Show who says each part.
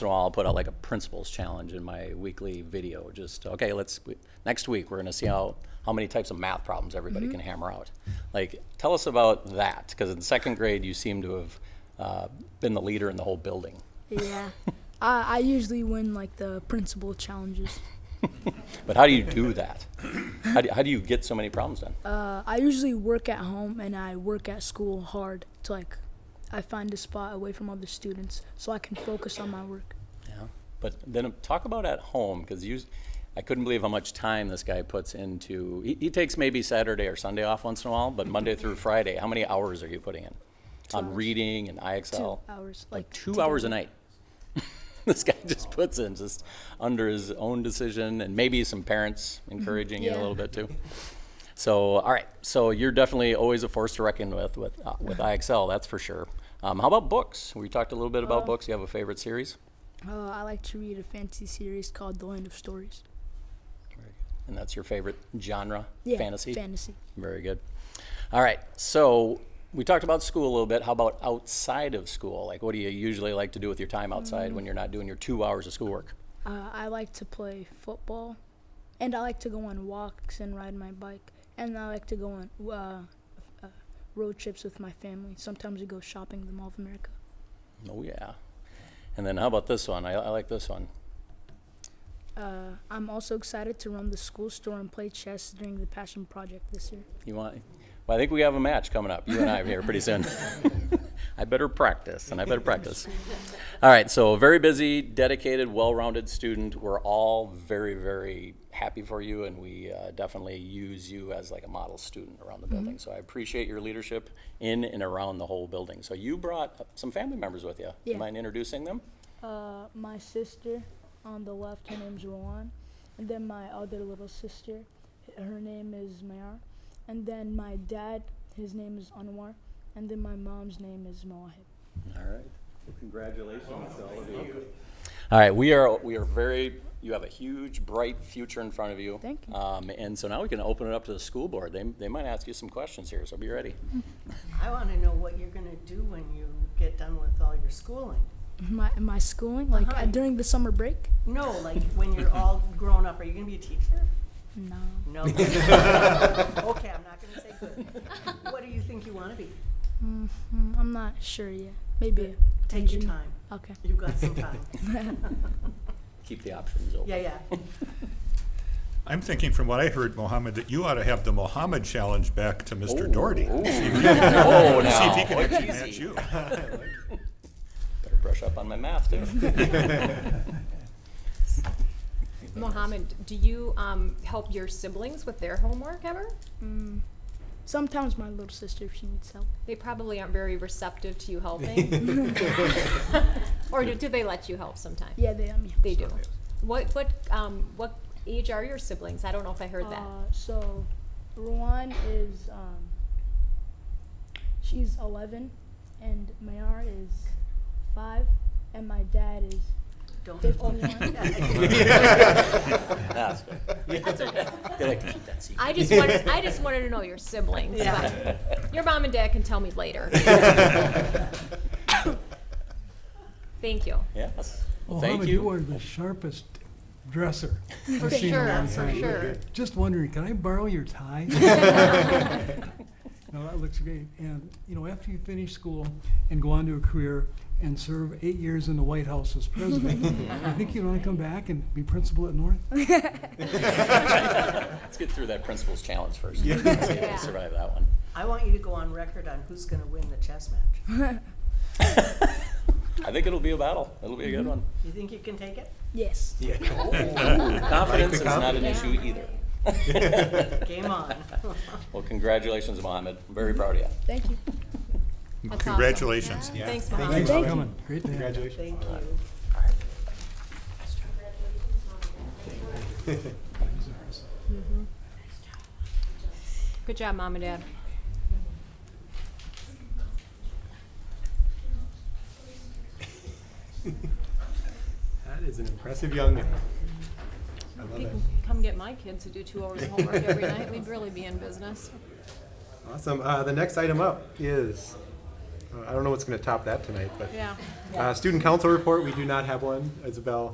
Speaker 1: in a while, I'll put out like a principles challenge in my weekly video. Just okay, let's we- next week we're gonna see how how many types of math problems everybody can hammer out. Like, tell us about that because in second grade you seem to have uh, been the leader in the whole building.
Speaker 2: Yeah. I, I usually win like the principal challenges.
Speaker 1: But how do you do that? How do, how do you get so many problems done?
Speaker 2: Uh, I usually work at home and I work at school hard to like I find a spot away from other students so I can focus on my work.
Speaker 1: Yeah. But then um, talk about at home because you, I couldn't believe how much time this guy puts into. He, he takes maybe Saturday or Sunday off once in a while, but Monday through Friday, how many hours are you putting in on
Speaker 2: hours.
Speaker 1: reading and
Speaker 2: Two
Speaker 1: IXL?
Speaker 2: hours.
Speaker 1: Like two hours a night. this guy just puts in just under his own decision and maybe some parents encouraging you a
Speaker 2: Yeah.
Speaker 1: little bit too. So, all right. So you're definitely always a force to reckon with with uh, with IXL. That's for sure. Um, how about books? We talked a little bit
Speaker 2: Oh.
Speaker 1: about books. You have a favorite series?
Speaker 2: Uh, I like to read a fantasy series called The Land of Stories.
Speaker 1: And that's your favorite genre,
Speaker 2: Yeah.
Speaker 1: fantasy?
Speaker 2: Fantasy.
Speaker 1: Very good. All right. So we talked about school a little bit. How about outside of school? Like, what do you usually like to do with your time
Speaker 2: Mm.
Speaker 1: outside when you're not doing your two hours of schoolwork?
Speaker 2: Uh, I like to play football, and I like to go on walks and ride my bike, and I like to go on uh, uh, road trips with my family. Sometimes we go shopping the Mall of America.
Speaker 1: Oh, yeah. And then how about this one? I, I like this one.
Speaker 2: Uh, I'm also excited to run the school store and play chess during the Passion Project this year.
Speaker 1: You want? Well, I think we have a match coming up. You and I here pretty soon. I better practice, and I better practice. All right. So very busy, dedicated, well-rounded student. We're all very, very happy for you, and we uh, definitely use you as like a model student around the building. So I appreciate your leadership in and around the whole building. So you brought some family members with you. Do
Speaker 2: Yeah.
Speaker 1: You mind introducing them?
Speaker 2: Uh, my sister on the left, her name's Rowan, and then my other little sister, h- her name is Mayar, and then my dad, his name is Anwar, and then my mom's name is Moahib.
Speaker 1: All right. Congratulations to all of you. All right, we are, we are very, you have a huge, bright future in front of you.
Speaker 2: Thank you.
Speaker 1: Um, and so now we can open it up to the school board. They, they might ask you some questions here, so be ready.
Speaker 3: I want to know what you're going to do when you get done with all your schooling.
Speaker 2: My my schooling, like uh,
Speaker 3: Uh-huh.
Speaker 2: during the summer break.
Speaker 3: No, like when you're all grown up, are you going to be a teacher?
Speaker 2: No.
Speaker 3: No. Okay, I'm not going to say good. What do you think you want to be?
Speaker 2: Mm, I'm not sure yet. Maybe.
Speaker 3: Take your
Speaker 2: engineer.
Speaker 3: time.
Speaker 2: Okay.
Speaker 3: You've got some time.
Speaker 1: Keep the options open.
Speaker 3: Yeah, yeah.
Speaker 4: I'm thinking from what I heard, Mohammed, that you ought to have the Mohammed challenge back to Mr.
Speaker 1: Ooh.
Speaker 4: Doherty.
Speaker 1: Ooh.
Speaker 4: See if he-
Speaker 1: Oh,
Speaker 4: see if
Speaker 1: now.
Speaker 4: he can
Speaker 1: Oh,
Speaker 4: actually
Speaker 1: easy.
Speaker 4: match you.
Speaker 1: Better brush up on my math, too.
Speaker 5: Mohammed, do you um, help your siblings with their homework ever?
Speaker 2: Mm. Sometimes my little sister, if she needs help.
Speaker 5: They probably aren't very receptive to you helping. or do, do they let you help sometimes?
Speaker 2: Yeah, they um, yeah.
Speaker 5: They do. What what um, what age are your siblings? I don't know if I heard that.
Speaker 2: Uh, so, Ruan is um, she's 11, and Mayar is five, and my dad is
Speaker 3: Don't.
Speaker 2: 51.
Speaker 1: That's good. They like to keep that secret.
Speaker 5: I just wanted I just wanted to know your siblings.
Speaker 3: Yeah.
Speaker 5: But your mom and dad can tell me later. Thank you.
Speaker 1: Yes. Well, thank
Speaker 6: Mohammed, you are
Speaker 1: you.
Speaker 6: the sharpest dresser.
Speaker 5: For
Speaker 6: I've seen in a
Speaker 5: sure,
Speaker 6: long
Speaker 5: for
Speaker 6: time.
Speaker 5: sure.
Speaker 6: Just wondering, can I borrow your tie? No, that looks great. And, you know, after you finish school and go on to a career and serve eight years in the White House as president, I think you'd want to come back and be principal at North.
Speaker 1: Let's get through that principal's challenge first. See if we
Speaker 5: Yeah.
Speaker 1: survive that one.
Speaker 3: I want you to go on record on who's going to win the chess match.
Speaker 1: I think it'll be a battle. It'll be a good one.
Speaker 3: You think you can take it?
Speaker 2: yes.
Speaker 1: Confidence is not an issue either.
Speaker 3: Game on.
Speaker 1: Well, congratulations, Mohammed. I'm very proud of you.
Speaker 2: Thank you.
Speaker 5: That's awesome.
Speaker 4: Congratulations.
Speaker 5: Thanks, Mohammed.
Speaker 2: Thank you.
Speaker 6: Coming. Great to have you.
Speaker 3: Thank you.
Speaker 5: Good job, mom and dad.
Speaker 7: That is an impressive young man. I love
Speaker 5: You
Speaker 7: it.
Speaker 5: can come get my kids to do two hours of homework every night. We'd really be in business.
Speaker 7: Awesome. Uh, the next item up is uh, I don't know what's going to top that tonight, but.
Speaker 3: Yeah.
Speaker 7: Uh, Student council report, we do not have one. Isabel